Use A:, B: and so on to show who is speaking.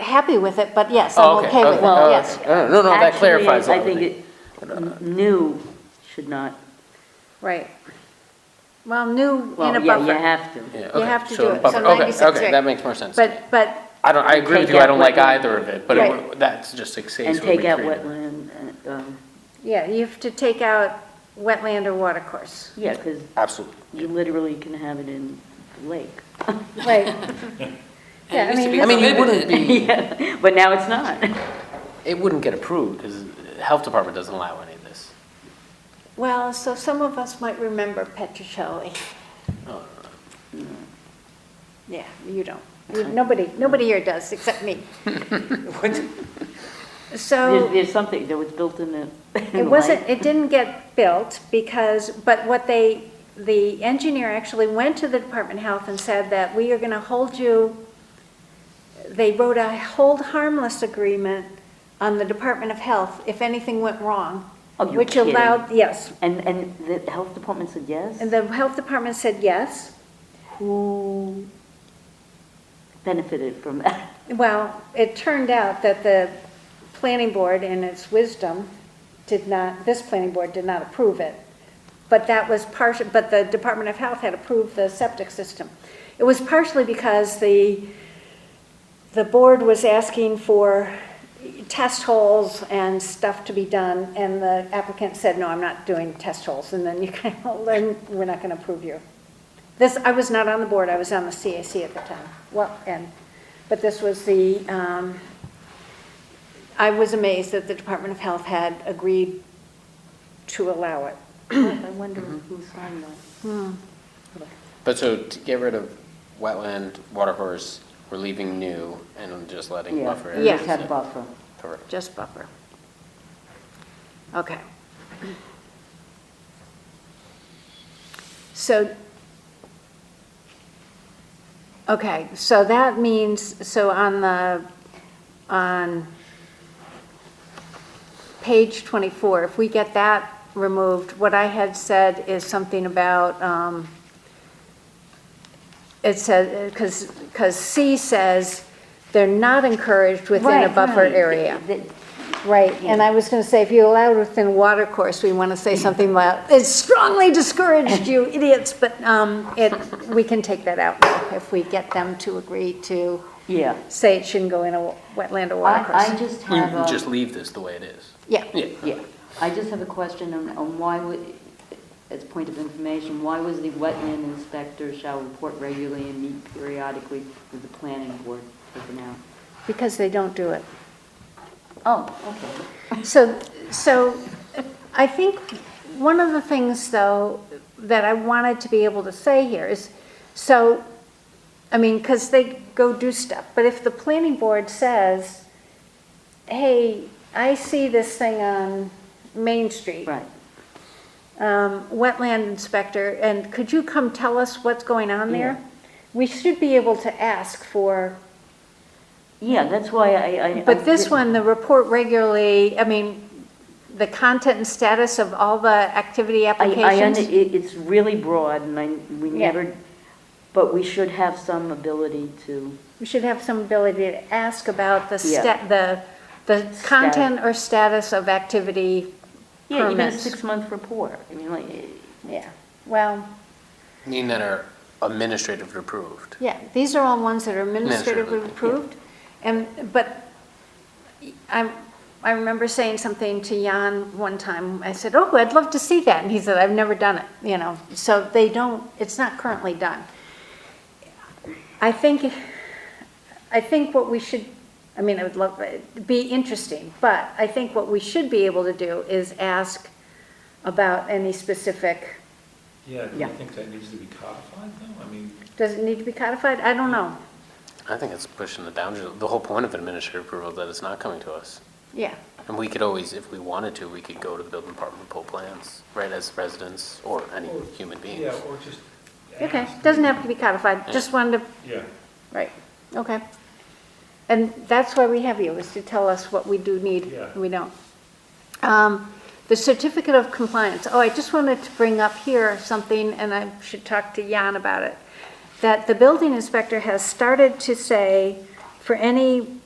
A: happy with it, but yes,
B: Oh,
A: I'm okay with it,
B: oh,
A: yes.
B: okay. Oh, No, no, that
C: Actually,
B: clarifies
C: I think
B: everything.
C: it, n- new should not,
A: Right. Well, new
C: well,
A: in a
C: yeah, you
A: buffer,
C: have to.
B: Yeah,
A: you
B: okay,
A: have to
B: so
A: do it, so
B: buffer- okay,
A: 96,
B: Okay,
A: right.
B: that makes more sense.
A: but, but,
B: I don't, I agree with
C: Take
B: you, I
C: out
B: don't like
C: what-
B: either of it, but it
A: Right.
B: would- that's just exceeds
C: And
B: what we
C: take out
B: created.
C: wetland, uh, um,
A: yeah, you have to take out wetland or water course.
C: yeah, because
B: Absolutely.
C: you literally can have it in the lake.
A: Right. Yeah, I mean,
B: I mean, it wouldn't be,
C: Yeah, But now it's not.
B: it wouldn't get approved because the health department doesn't allow any of this.
A: well, so some of us might remember Petrocelli.
B: Oh,
A: Yeah, you don't. You- Nobody, nobody here does, except me.
C: There's,
A: So
C: there's something that was built in the, in the
A: Oh. it
C: lake.
A: wasn't, it didn't get built because, but what they, the engineer actually went to the Department of Health and said that we are going to hold you, they wrote a hold harmless agreement on the Department of Health if anything went wrong.
C: Oh, you're
A: Which allowed, yes.
C: And, and the health department said yes?
A: And the health department said yes.
C: Who benefited from that?
A: Well, it turned out that the planning board in its wisdom did not, this planning board did not approve it. But that was partial, but the Department of Health had approved the septic system. It was partially because the, the board was asking for test holes and stuff to be done, and the applicant said, no, I'm not doing test holes, and then you kind of, then we're not gonna approve you. This, I was not on the board, I was on the CAC at the time, well, and, but this was the, um, I was amazed that the Department of Health had agreed to allow it.
C: I wonder
B: Mm-hmm.
C: who signed that.
B: But so to get rid of wetland, water course, we're leaving new and just letting
C: Yeah,
B: buffer.
C: it
A: Yeah.
B: areas
C: just had
B: in.
C: buffer.
B: Correct.
A: Just buffer. Okay. So, okay, so that means, so on the, on page 24, if we get that removed, what I had said is something about, um, it says, because, because C says they're not encouraged within a
C: Right,
A: buffer
C: right.
A: area.
C: Th- th-
A: Right, and I was going to say, if you allow it within water course, we want to say something about, it's strongly discouraged, you idiots, but um, it, we can take that out now if we get them to agree to
C: Yeah.
A: say it shouldn't go in a wa- wetland or water
C: I, I
A: course.
C: just
B: You
C: have
B: you
C: a.
B: Mm, just leave this the way it is.
A: Yeah,
B: Yeah.
C: Yeah, I just have a question on, on why would, as a point of information, why was the wetland inspector shall report regularly and meet periodically with the planning board taken out?
A: because they don't do it.
C: Oh, okay.
A: So, so I think one of the things, though, that I wanted to be able to say here is, so, I mean, because they go do stuff, but if the planning board says, hey, I see this thing on Main Street.
C: Right,
A: um, Wetland inspector, and could you come tell us what's going on there? We should be able to ask for,
C: yeah, that's why I, I.
A: but this one, the report regularly, I mean, the content and status of all the activity
C: I, I, under-
A: applications?
C: it, it's really broad and I, we
A: Yeah.
C: never, but we should have some ability to,
A: We should have some ability to ask about the
C: Yeah.
A: sta, the, the content or status of activity
C: yeah, even a
A: permits.
C: six-month report, I mean, like,
A: Yeah, well,
B: Meaning that are administratively approved.
A: yeah, these are all ones that are administratively
B: Administratively, yeah.
A: approved. And, but I, I remember saying something to Jan one time, I said, oh, I'd love to see that, and he said, I've never done it, you know, so they don't, it's not currently done. I think, I think what we should, I mean, I would love, it'd be interesting, but I think what we should be able to do is ask about any specific,
D: Yeah, do
C: Yeah.
D: you think that needs to be codified though? I mean,
A: does it need to be codified? I don't know,
B: I think it's pushing it down. The whole point of administrative approval is that it's not coming to us.
A: yeah.
B: And we could always, if we wanted to, we could go to the building department and pull plans, right, as residents or any human
D: yeah,
B: beings.
D: or just
A: Okay,
D: ask.
A: doesn't have to be codified, just wanted to
D: Yeah,
A: Right, okay. And that's why we have you, is to tell us what we do need,
D: Yeah.
A: and we don't. Um, The certificate of compliance, oh, I just wanted to bring up here something, and I should talk to Jan about it, that the building inspector has started to say, for any